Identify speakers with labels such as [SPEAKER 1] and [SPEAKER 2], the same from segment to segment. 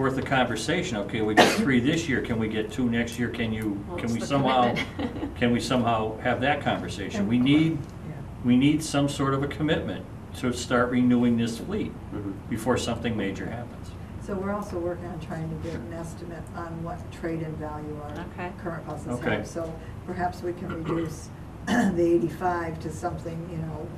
[SPEAKER 1] worth of conversation, okay, we got three this year, can we get two next year, can you,
[SPEAKER 2] Well,
[SPEAKER 1] can
[SPEAKER 2] it's
[SPEAKER 1] we
[SPEAKER 2] the
[SPEAKER 1] somehow,
[SPEAKER 2] commitment.
[SPEAKER 1] can we somehow have that conversation? We need, we need some sort of a commitment to start renewing this fleet before something major happens.
[SPEAKER 3] So we're also working on trying to get an estimate on what trade-in value
[SPEAKER 2] Okay.
[SPEAKER 3] our current buses
[SPEAKER 1] Okay.
[SPEAKER 3] have. So perhaps we can reduce the eighty-five to something, you know,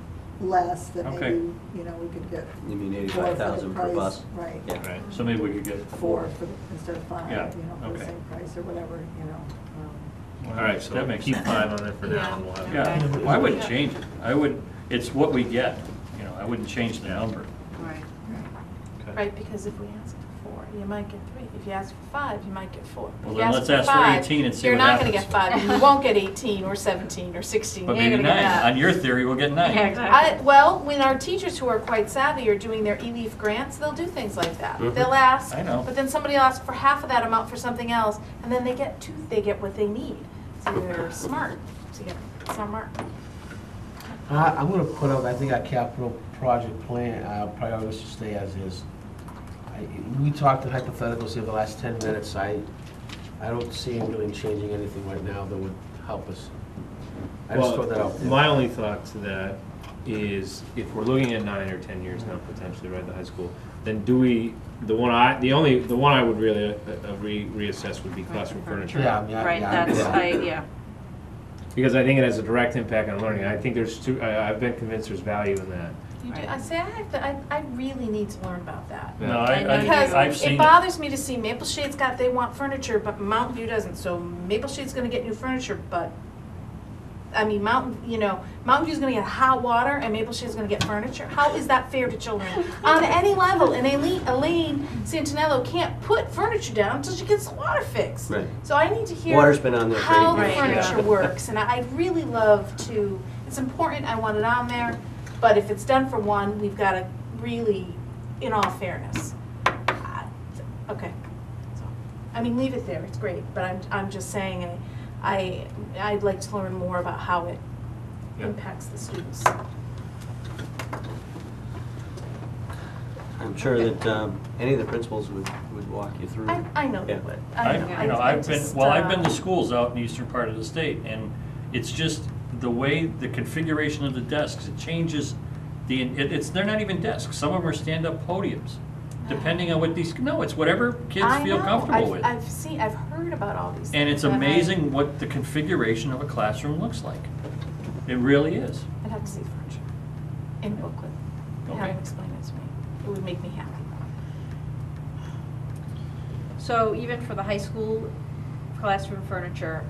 [SPEAKER 3] less that
[SPEAKER 1] Okay.
[SPEAKER 3] maybe, you know, we could get.
[SPEAKER 4] You mean
[SPEAKER 3] four for the
[SPEAKER 4] 85,000 per
[SPEAKER 3] price,
[SPEAKER 4] bus?
[SPEAKER 3] Right.
[SPEAKER 4] Yeah. Right.
[SPEAKER 1] So maybe we could get.
[SPEAKER 3] Four for, the- instead of
[SPEAKER 1] Yeah,
[SPEAKER 3] five, you know, for
[SPEAKER 1] okay.
[SPEAKER 3] the same price or whatever, you know. um,
[SPEAKER 5] All right, so
[SPEAKER 1] That makes
[SPEAKER 5] keep
[SPEAKER 1] sense.
[SPEAKER 5] five on there for now, and we'll have.
[SPEAKER 1] Yeah,
[SPEAKER 2] Okay.
[SPEAKER 1] well, I wouldn't change it, I would, it's what we get, you know, I wouldn't change the number.
[SPEAKER 2] Right.
[SPEAKER 5] Okay.
[SPEAKER 6] Right, because if we ask for four, you might get three. If you ask for five, you might get four. If
[SPEAKER 1] Well,
[SPEAKER 6] you
[SPEAKER 1] then let's ask for
[SPEAKER 6] five,
[SPEAKER 1] 18 and see what
[SPEAKER 6] You're
[SPEAKER 1] happens.
[SPEAKER 6] not gonna get five, and you won't get eighteen or seventeen or sixteen.
[SPEAKER 1] But
[SPEAKER 6] You're
[SPEAKER 1] maybe
[SPEAKER 6] not gonna
[SPEAKER 1] nine,
[SPEAKER 6] get that.
[SPEAKER 1] on your theory, we'll get
[SPEAKER 2] Yeah,
[SPEAKER 1] nine.
[SPEAKER 2] exactly.
[SPEAKER 6] I, well, when our teachers who are quite savvy are doing their E E-leaf grants, they'll do things like that.
[SPEAKER 4] Mhm.
[SPEAKER 6] They'll ask,
[SPEAKER 1] Mm-hmm. I know.
[SPEAKER 6] but then somebody will ask for half of that amount for something else, and then they get two, they get what they need. So they're smart, so yeah, smart.
[SPEAKER 7] I, I'm gonna put up, I think our capital project plan, our priorities should stay as is. I- We talked in hypotheticals here the last ten minutes, I, I don't see it really changing anything right now that would help us. I just throw that out there.
[SPEAKER 5] My only thought to that is, if we're looking at nine or ten years now potentially, right, the high school, then do we, the one I, the only, the one I would really uh, uh, re- reassess would be classroom furniture.
[SPEAKER 7] Yeah, I mean, I-
[SPEAKER 2] Right,
[SPEAKER 7] yeah, I-
[SPEAKER 2] that's,
[SPEAKER 7] yeah.
[SPEAKER 2] I, yeah.
[SPEAKER 5] Because I think it has a direct impact on learning, I think there's two, I, I've been convinced there's value in that.
[SPEAKER 6] You do,
[SPEAKER 2] Right.
[SPEAKER 6] I say, I have to, I, I really need to learn about that.
[SPEAKER 1] No, I,
[SPEAKER 6] Because
[SPEAKER 1] I, I've seen
[SPEAKER 6] it
[SPEAKER 1] it.
[SPEAKER 6] bothers me to see Maple Shade's got, they want furniture, but Mountain View doesn't, so Maple Shade's gonna get new furniture, but, I mean, Mountain, you know, Mountain View's gonna get hot water and Maple Shade's gonna get furniture, how is that fair to children? On any level, and Elaine, Elaine Santinello can't put furniture down until she gets the water fixed.
[SPEAKER 4] Right.
[SPEAKER 6] So I need to hear
[SPEAKER 4] Water's been on there for
[SPEAKER 6] how the
[SPEAKER 4] eight
[SPEAKER 2] years.
[SPEAKER 6] furniture works, and I- I'd really love to, it's important, I want it on there, but if it's done for one, we've gotta really, in all fairness. I- Okay, so, I mean, leave it there, it's great, but I'm, I'm just saying, I, I- I'd like to learn more about how it
[SPEAKER 1] Yeah.
[SPEAKER 6] impacts the students.
[SPEAKER 4] Mm-hmm. I'm sure that um, any of the principals would, would walk you through.
[SPEAKER 6] I, I know they
[SPEAKER 4] Yeah.
[SPEAKER 6] would.
[SPEAKER 1] I,
[SPEAKER 6] I-
[SPEAKER 1] you know,
[SPEAKER 6] I
[SPEAKER 1] I've been,
[SPEAKER 6] just,
[SPEAKER 1] well, I've
[SPEAKER 6] uh,
[SPEAKER 1] been to schools out in the eastern part of the state, and it's just the way, the configuration of the desks, it changes the, it, it's, they're not even desks, some of them are stand-up podiums, depending on what these, no, it's whatever kids
[SPEAKER 6] I
[SPEAKER 1] feel
[SPEAKER 6] know.
[SPEAKER 1] comfortable
[SPEAKER 6] I've-
[SPEAKER 1] with.
[SPEAKER 6] I've seen, I've heard about all these things.
[SPEAKER 1] And it's
[SPEAKER 6] I-
[SPEAKER 1] amazing what the configuration of a classroom looks like. It really is.
[SPEAKER 6] I'd have to see furniture in booklet, and have
[SPEAKER 1] Okay.
[SPEAKER 6] them explain it to me. It would make me happy.
[SPEAKER 2] So even for the high school classroom furniture,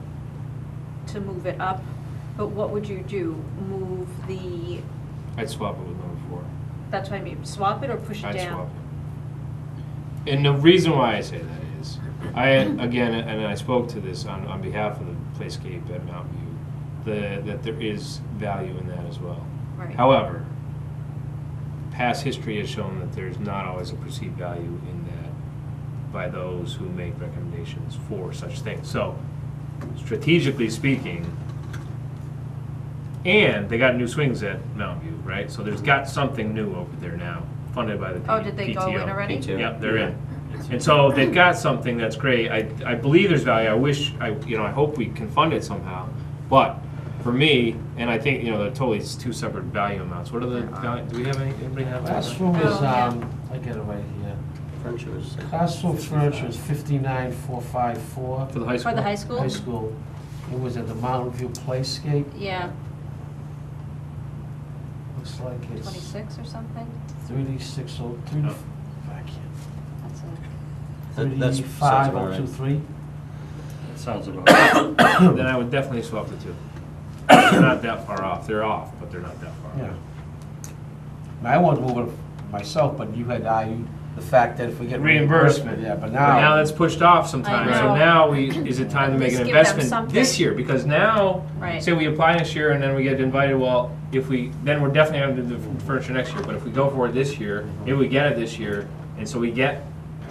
[SPEAKER 2] to move it up, but what would you do? Move the,
[SPEAKER 5] I'd swap it with number four.
[SPEAKER 2] that's what I mean, swap it or push it
[SPEAKER 5] I'd swap
[SPEAKER 2] down?
[SPEAKER 5] it. And the reason why I say that is, I, again, and I spoke to this on, on behalf of the Playscape at Mountain View, the, that there is value in that as well.
[SPEAKER 2] Right.
[SPEAKER 5] However, past history has shown that there's not always a perceived value in that by those who make recommendations for such things. So strategically speaking, and they got new swings at Mountain View, right? So there's got something new over there now, funded by the P- PTO.
[SPEAKER 2] Oh, did they go in already?
[SPEAKER 4] PTO.
[SPEAKER 5] Yep, they're in. And so they've got something that's great. I, I believe there's value. I wish, I, you know, I hope we can fund it somehow. But for me, and I think, you know, they're totally s- two separate value amounts. What are
[SPEAKER 2] Uh-huh.
[SPEAKER 5] the, val- do we have any, anybody have? that?
[SPEAKER 7] Classroom is,
[SPEAKER 2] Oh, yeah.
[SPEAKER 7] um, I get it right here.
[SPEAKER 4] Furniture was.
[SPEAKER 7] Classroom furniture is fifty-nine, four, five, four.
[SPEAKER 5] For the high school?
[SPEAKER 2] For the high school?
[SPEAKER 7] High school, it was at the Mountain View Playscape,
[SPEAKER 2] Yeah,
[SPEAKER 7] looks like it's.
[SPEAKER 2] twenty-six or something?
[SPEAKER 7] Thirty-six oh, thirty,
[SPEAKER 5] No.
[SPEAKER 7] I can't,
[SPEAKER 2] That's a,
[SPEAKER 4] That- that's- sounds
[SPEAKER 7] thirty-five
[SPEAKER 4] about
[SPEAKER 7] oh
[SPEAKER 4] right.
[SPEAKER 7] two three.
[SPEAKER 1] That sounds about right.
[SPEAKER 5] Then I would definitely swap the two. They're not that far off. They're off, but they're not that far
[SPEAKER 7] Yeah.
[SPEAKER 5] off.
[SPEAKER 7] Now, I wanted to move it myself, but you had argued the fact that if we get
[SPEAKER 5] Reimbursement.
[SPEAKER 7] reimbursement, yeah,
[SPEAKER 5] But
[SPEAKER 7] but
[SPEAKER 5] now
[SPEAKER 7] now,
[SPEAKER 5] that's pushed off sometimes. So
[SPEAKER 2] know.
[SPEAKER 5] now we, is it time to make
[SPEAKER 2] Just
[SPEAKER 5] an
[SPEAKER 2] give them
[SPEAKER 5] investment
[SPEAKER 2] something.
[SPEAKER 5] this year? Because now,
[SPEAKER 2] right.
[SPEAKER 5] Say we apply this year and then we get invited, well, if we, then we're definitely having to do the furniture next year, but if we go for it this year, maybe we get it this year, and so we get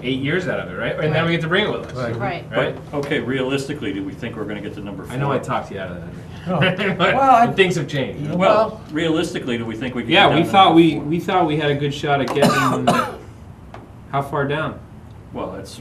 [SPEAKER 5] eight years out of it, right? And then we get to bring it with us,
[SPEAKER 2] Right.
[SPEAKER 5] right?
[SPEAKER 1] But, okay, realistically, do we think we're gonna get to number four?
[SPEAKER 5] I know I talked you out of
[SPEAKER 7] No.
[SPEAKER 5] that. but
[SPEAKER 7] Well, I-
[SPEAKER 5] Things have changed.
[SPEAKER 7] Yeah.
[SPEAKER 1] Well, realistically, do we think we can? get
[SPEAKER 5] Yeah, we
[SPEAKER 1] down to
[SPEAKER 5] thought
[SPEAKER 1] number
[SPEAKER 5] we,
[SPEAKER 1] four?
[SPEAKER 5] we thought we had a good shot at getting, how far down?
[SPEAKER 1] Well, that's